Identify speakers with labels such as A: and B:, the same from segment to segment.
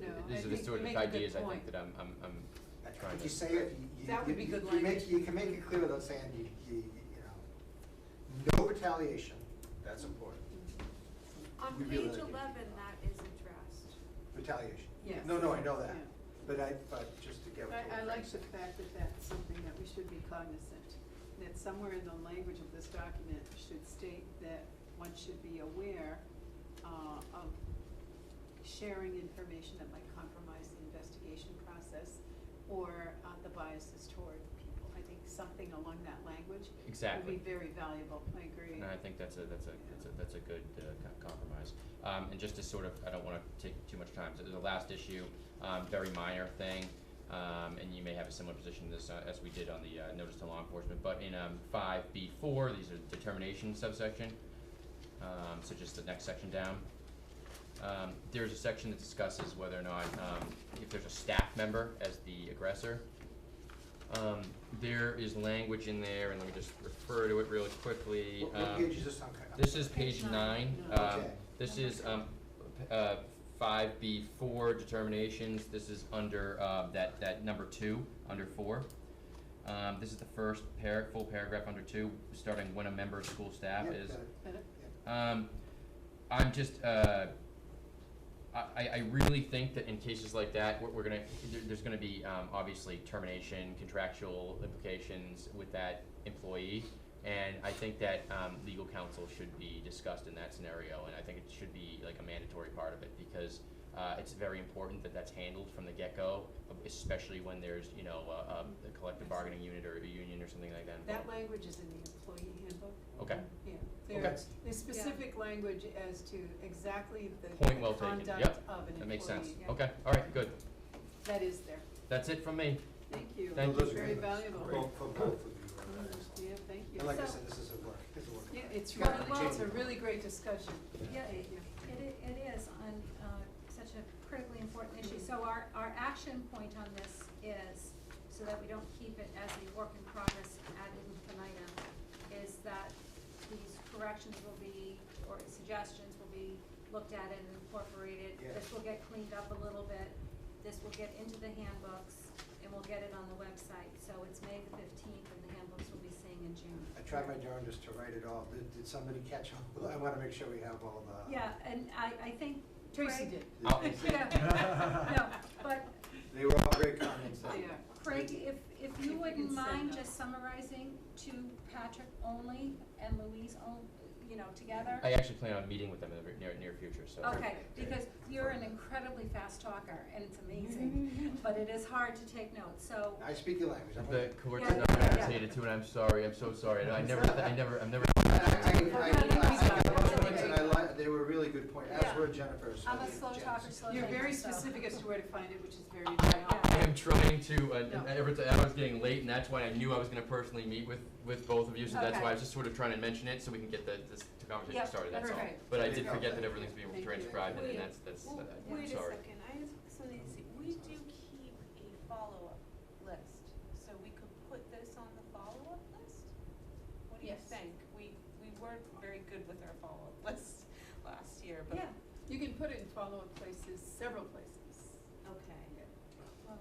A: so
B: You
A: there's
B: make-
A: two
B: you
A: different
B: make a good
A: ideas, I think,
B: point.
A: that I'm, I'm, I'm
C: I think
A: trying
C: If
A: to.
C: you say it, you,
B: That
C: you,
B: would be
C: you
B: good
C: you make,
B: language.
C: you can make it clear without saying you, you, you know, no retaliation, that's important,
D: On
C: We really
D: page
C: like it.
D: eleven, that is addressed.
C: retaliation.
B: Yes.
C: No, no, I know that,
E: Yeah.
C: but I, but just to get.
E: I, I like the fact that that's something that we should be cognizant, that somewhere in the language of this document should state that one should be aware, uh, of sharing information that might compromise the investigation process or, uh, the biases toward people. I think something along that language
A: Exactly.
E: would be very valuable, I agree.
A: And I think that's a, that's a, that's a, that's a good uh, co- compromise. Um, and just to sort of, I don't wanna take too much time, so the last issue, um, very minor thing, um, and you may have a similar position to this, uh, as we did on the, uh, notice to law enforcement, but in, um, five B four, these are determination subsection, um, so just the next section down. Um, there's a section that discusses whether or not, um, if there's a staff member as the aggressor, um, there is language in there, and let me just refer to it really quickly.
C: What, what
A: um,
C: page is this on? I'm
A: this is
D: Page
A: page nine,
D: nine.
A: um,
C: Okay.
A: this is, um, p- uh, five B four determinations, this is under, uh, that, that number two, under four. Um, this is the first par- full paragraph under two, starting when a member of school staff
C: Yeah,
A: is.
C: got it.
E: Better?
A: Um, I'm just, uh, I, I I really think that in cases like that, we're, we're gonna, there, there's gonna be, um, obviously termination, contractual implications with that employee. And I think that, um, legal counsel should be discussed in that scenario, and I think it should be like a mandatory part of it, because, uh, it's very important that that's handled from the get-go, especially when there's, you know, uh, um, a collective bargaining unit or a union or something like that involved.
E: That language is in the employee handbook.
A: Okay.
E: Yeah,
A: Okay.
E: there's, there's specific language as to exactly the the
A: Point well
E: conduct of
A: taken.
E: an employee.
A: Yep. That makes sense,
E: yeah.
A: okay, alright, good,
E: That is there,
A: that's it from me.
E: thank you.
A: Thank
C: No, those are
E: Very
C: good.
E: valuable.
C: Well, For both of you, are very
E: Mm,
C: excellent.
E: Yeah, thank you.
C: And like I
D: So-
C: said, this is a work, this is a work.
E: Yeah, it's
C: Got
E: really,
C: it.
E: well, it's a
C: Jane.
E: really great discussion.
D: Yeah,
E: Thank you.
D: It i- it is on, uh, such a critically important issue, so our, our action point on this is, so that we don't keep it as a work in progress ad infinitum, is that these corrections will be, or suggestions will be looked at and incorporated.
C: Yeah.
D: This will get cleaned up a little bit, this will get into the handbooks, and we'll get it on the website, so it's May the fifteenth, and the handbooks will be seeing in June.
C: I tried my darndest to write it all, did, did somebody catch all, I wanna make sure we have all the.
D: Yeah, and I, I think
E: Tracy
D: Greg-
E: did.
A: I'll-
D: Yeah, no, but
C: They were all great comments.
E: They are.
D: Craig, if, if
E: If
D: you
E: you
D: wouldn't
E: can send
D: mind
E: them.
D: just summarizing to Patrick only and Louise on, you know, together?
A: I actually plan on meeting with them in the very- near, near future, so.
D: Okay, because you're an incredibly fast talker and it's amazing, but it is hard to take notes, so,
C: I speak your language, I'm.
A: The court's
D: Yeah.
A: not agitated too, and I'm sorry, I'm so sorry, and I never, th- I never, I'm never.
C: I, I, I, I got
D: That's
C: those ones
D: okay.
C: and I li- they were really good points, as
D: Yeah.
C: were Jennifer's.
D: I'm a
C: and
D: slow
C: Jen's.
D: talker, slow thinker,
E: You're very
D: so-
E: specific as to where to find it, which is very
A: I
E: valuable.
A: am trying to, uh,
E: No.
A: ever, t- I was getting late, and that's why I knew I was gonna personally meet with, with both of you, so that's
D: Okay.
A: why I was just sort of trying to mention it, so we can get the, this conversation
D: Yep,
A: started, that's all.
E: perfect.
A: But I
C: There you
A: did
C: go.
A: forget that
C: Thank
A: everything's being
E: Thank you.
A: transcribed, and
F: Wait.
A: that's, that's,
F: Well,
A: uh, I'm
F: wait a
A: sorry.
F: second, I have something to say, we do keep a follow-up list, so we could put this on the follow-up list? What do you
E: Yes.
F: think? We, we weren't very good with our follow-up list last year, but.
D: Yeah.
E: You can put it in follow-up places, several places.
F: Okay.
D: well,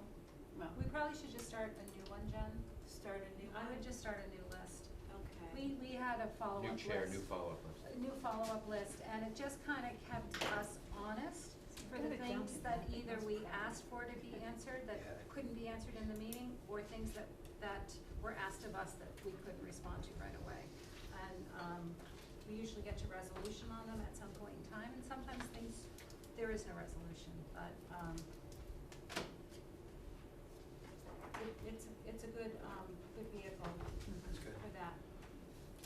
E: Well,
D: we probably should just start a new one, Jen.
F: Start a new
D: I
F: one?
D: would just start a new list.
F: Okay.
D: We, we had a follow-up
A: New
D: list.
A: chair, new follow-up list.
D: a new follow-up list, and it just kind of kept us honest for the
E: Kinda jumping
D: things that
E: on it,
D: either
E: that's
D: we
E: fine.
D: asked for to be answered, that
C: Yeah.
D: couldn't be answered in the meeting, or things that, that were asked of us that we couldn't respond to right away. And, um, we usually get to resolution on them at some point in time, and sometimes things, there is no resolution, but, um, it, it's, it's a good, um, good vehicle
C: That's good.
D: for that.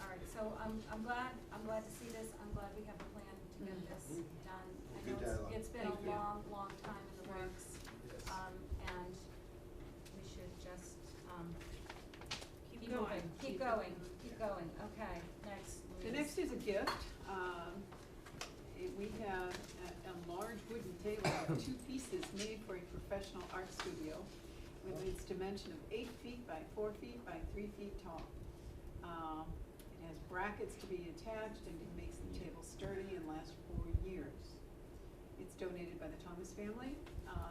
D: All right, so I'm, I'm glad, I'm glad to see this, I'm glad we have a plan to get this
C: Mhm.
D: done. I
C: Good
D: know it's-
C: dialogue.
D: It's been a
E: Thank you.
D: long, long time in the
E: Right.
D: works,
C: Yes.
D: um, and we should just, um,
F: Keep going.
D: Keep
E: Keep
D: going,
E: it-
D: keep going, okay, next,
E: The
D: Louise.
E: next is a gift. Um, it- We have a, a large wooden table with two pieces made for a professional art studio with its dimension of eight feet by four feet by three feet tall. Um, It has brackets to be attached and it makes the table sturdy and lasts four years. It's donated by the Thomas family, uh,